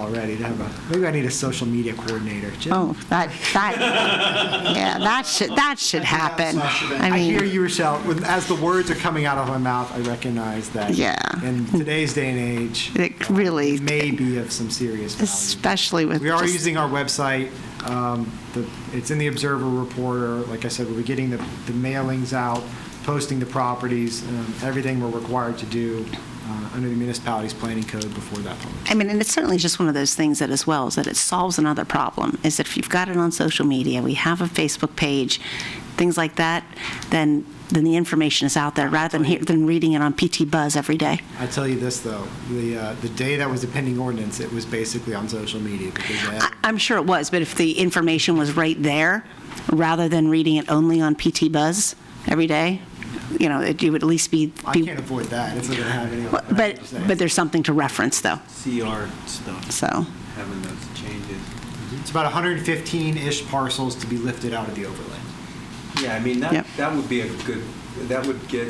already to have a, maybe I need a social media coordinator. Jim? Oh, that, that, yeah, that should, that should happen. I I hear mean, you, Rochelle. When- As the words are coming out of my mouth, I recognize that. Yeah. In today's day and age, it really, it may be of some serious value. especially with We are just- using our website. Um, the, it's in the Observer Reporter. Like I said, we'll be getting the, the mailings out, posting the properties, um, everything we're required to do uh, under the municipality's planning code before that public. I mean, and it's certainly just one of those things that as well, is that it solves another problem, is that if you've got it on social media, we have a Facebook page, things like that, then, then the information is out there, rather than, hear- than reading it on PT Buzz every day. I tell you this though, the uh, the day that was the pending ordinance, it was basically on social media because they had I- I'm sure it was, but if the information was right there, rather than reading it only on PT Buzz every day, you know, it you would at least be. I be- can't avoid that. It's not going to have any. But, but there's something to reference, though, CR stuff, so. having those changes. It's about 115-ish parcels to be lifted out of the overlay. Yeah, I mean, Yep. that, that would be a good, that would get,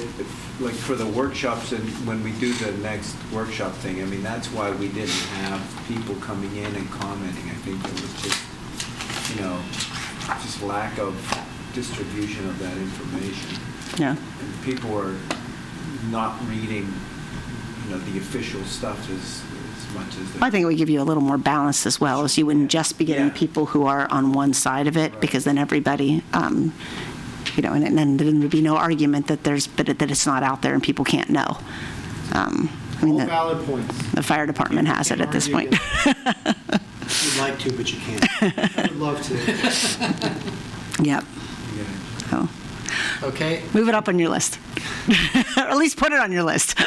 like, for the workshops and when we do the next workshop thing, I mean, that's why we didn't have people coming in and commenting. I think it was just, you know, just lack of distribution of that information. Yeah. And People are not reading, you know, the official stuff as, as much as. they- I think it would give you a little more balance as well, as you wouldn't just be getting Yeah. people who are on one side of it, Right. because then everybody, um, you know, and then there would be no argument that there's, but it- that it's not out there and people can't know. Um, I mean, All the valid points. the fire department has it at this point. You'd like to, but you can't. I would love to. Yep. Yeah. So, Okay, Move it up on your list. Or at least put it on your list.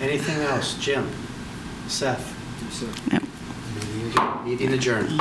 anything else? Jim? Seth? Yep. Meeting adjourned.